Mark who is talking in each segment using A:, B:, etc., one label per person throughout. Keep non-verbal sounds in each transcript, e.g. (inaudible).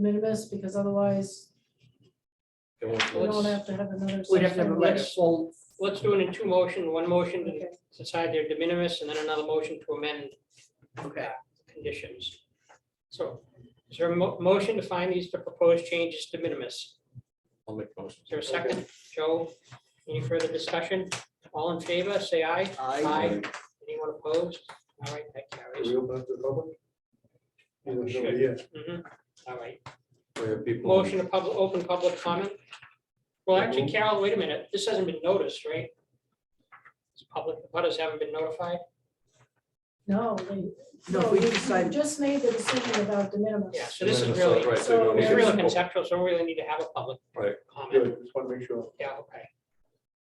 A: minimis, because otherwise
B: It won't-
A: we don't have to have another.
C: We'd have to have a
A: session.
C: letter, full,
D: Let's do it in two motion, one motion to
A: Okay.
D: decide their de minimis and then another motion to amend uh,
C: okay,
D: conditions. So is there a mo- motion to find these to propose changes de minimis?
B: I'll make motions.
D: Is there a second? Joe, any further discussion? All in favor, say aye.
C: I,
D: Anyone opposed? All right, that
E: Can
D: carries.
E: we open up to the public?
D: Yeah, we should.
E: Yeah.
D: Mhm. All right,
B: We have people.
D: motion to public, open public comment? Well, actually, Carol, wait a minute, this hasn't been noticed, right? It's public, butters haven't been notified?
A: No, we-
C: no,
A: no,
C: we
A: you you
C: decide,
A: just made the decision about de minimis.
D: Yeah, so this is
B: Right,
D: really,
B: right,
D: it's
B: so we don't
A: so
B: need to-
A: it's
D: really conceptual, so we really need to have a public
B: Right.
D: comment.
E: Good, just want to make sure.
D: Yeah, okay.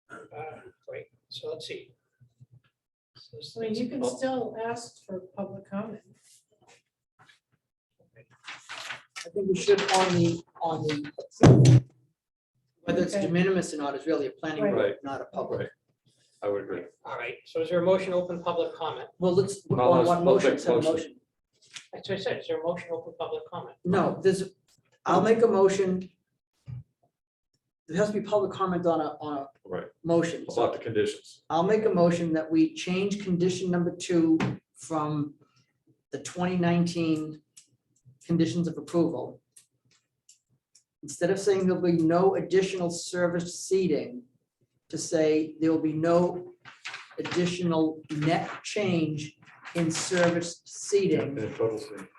D: Uh, Great, so let's see. So it's-
A: I mean, you can
D: oh,
A: still ask for public comment.
C: I think we should on the, on the. approval. Whether it's de
A: Okay.
C: minimis or not is really a planning,
A: Right.
C: board,
B: Right.
C: not a public.
B: Oh, Right. I would agree.
D: All right, so is there a motion to open public comment?
C: Well, let's, we're
B: Well,
C: on
B: let's-
C: one
B: let's
C: motion,
B: make
C: so a
B: motion.
C: motion.
D: That's what I said, is there a motion to open public comment?
C: No, there's, I'll make a motion. There has to be public comment on a, on a
B: Right.
C: motion, so
B: About the conditions.
C: I'll make a motion that we change condition number two from the twenty nineteen conditions of approval. Instead of saying there'll be no additional service seating, to say there will be no additional net change in service seating
B: In total, thing.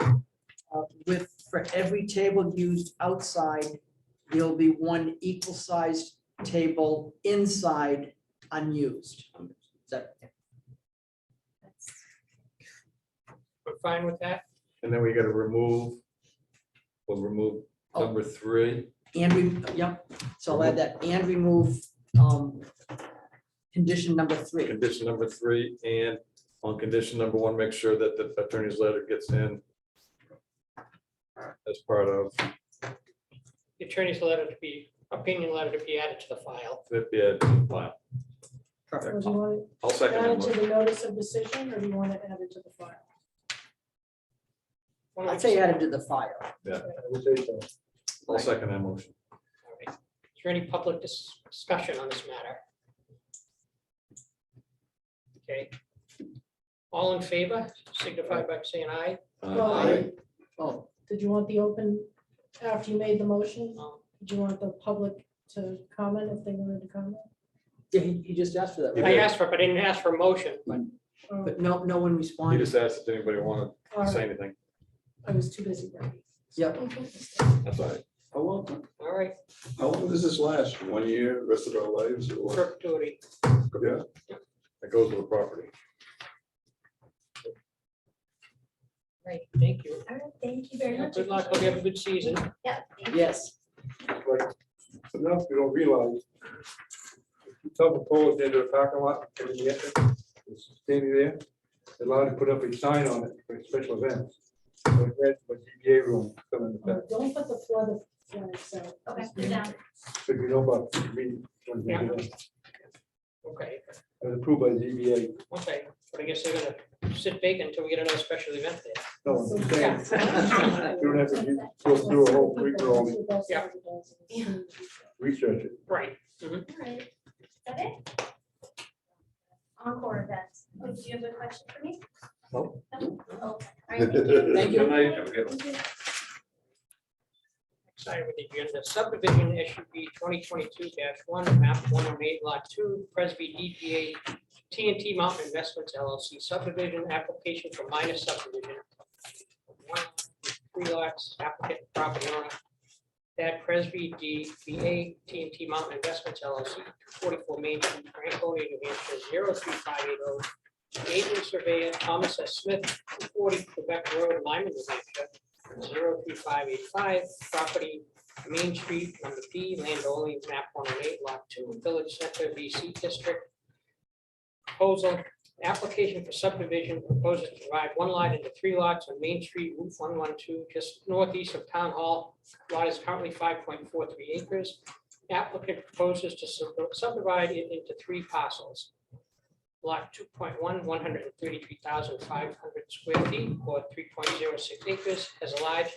C: uh, with, for every table used outside, there'll be one equal-sized table inside unused. Is that-
D: We're fine with that?
B: and then we gotta remove, we'll remove number three.
C: And we, yep, so I'll add that, and remove, um, condition number three.
B: condition number three, and on condition number one, make sure that the attorney's letter gets in as part of,
D: The Attorney's letter to be, opinion letter to be added to the file.
B: the bid file.
A: Or
C: Perfect.
A: do you want
B: I'll
A: to
B: second
A: add
B: that
A: it
B: motion.
A: to the notice of decision, or do you want to add it to the file?
D: Why don't
C: I'd
D: we
C: say
D: just-
C: added to the file.
E: I would say so.
B: I'll second that motion.
D: All right. Is there any public dis- discussion on this matter? Okay. All in favor, signify by saying aye.
A: Well,
B: Uh,
A: I-
D: Aye.
C: Oh,
A: Did you want the open, after you made the motion,
D: Um,
A: did you want the public to comment if they wanted to comment?
C: yeah, he, he just asked for that, right?
D: I asked for, it, but I didn't ask for a motion.
A: Or-
C: But no, no one
B: He
C: responded.
B: just asked if anybody wanted
A: or
B: to say anything.
A: I was too busy writing.
C: Yep,
B: That's all right.
E: How long,
D: All right,
E: how long does this last? One year, rest of our lives or what?
D: perpetuity.
E: Yeah.
B: That goes with the property.
D: Great, thank you.
F: All right, thank you very much.
D: Good luck, hope you have a good season.
F: Yeah, thank you.
C: yes.
E: Like, Enough, you don't realize. You Tell the pole into the parking lot, and then you get it, it's standing there, they're allowed to put up a sign on it for special events. So it's red, But ZBA room, come in the back,
A: Oh, Don't put the flood of flags out.
F: Okay, yeah.
E: so you know about, the green ones they do that.
D: Okay,
E: It was approved by ZBA.
D: okay, but I guess they're gonna sit vacant until we get another special event there.
E: No, I'm just saying,
A: Yeah.
E: you don't have to do- go through a whole week long,
D: Yeah.
E: research it.
D: Right.
F: All right. Is that it? Encore events. Oh, Do you have a question for me?
B: No.
F: No? Oh, okay.
B: (laughs)
F: All right, thank you.
C: Thank you.
B: Good night, everybody.
F: Thank you.
D: Excited with the agenda subdivision issue B twenty twenty-two one, map one oh eight lot two, Presby DPA TNT Mountain Investments LLC subdivision application for minor subdivision. Three lots applicant property owner. That Presby DPA TNT Mountain Investments LLC, forty-four Main Street, Franconia, New Hampshire, 03580. oh. Agent surveyor Thomas S. Smith, forty Quebec Road, Lyman, New Hampshire, 03585, property Main Street, number B, land only, map 108, lot 2, Village Center, BC District. Proposal, application for subdivision proposes to divide one lot into three lots on Main Street, Route 112, just northeast of Town Hall. Lot is currently 5.43 acres. Applicant proposes to sub- subdivide it into three parcels. Lot 2.1, 133,500 square feet, or 3.06 acres, has a large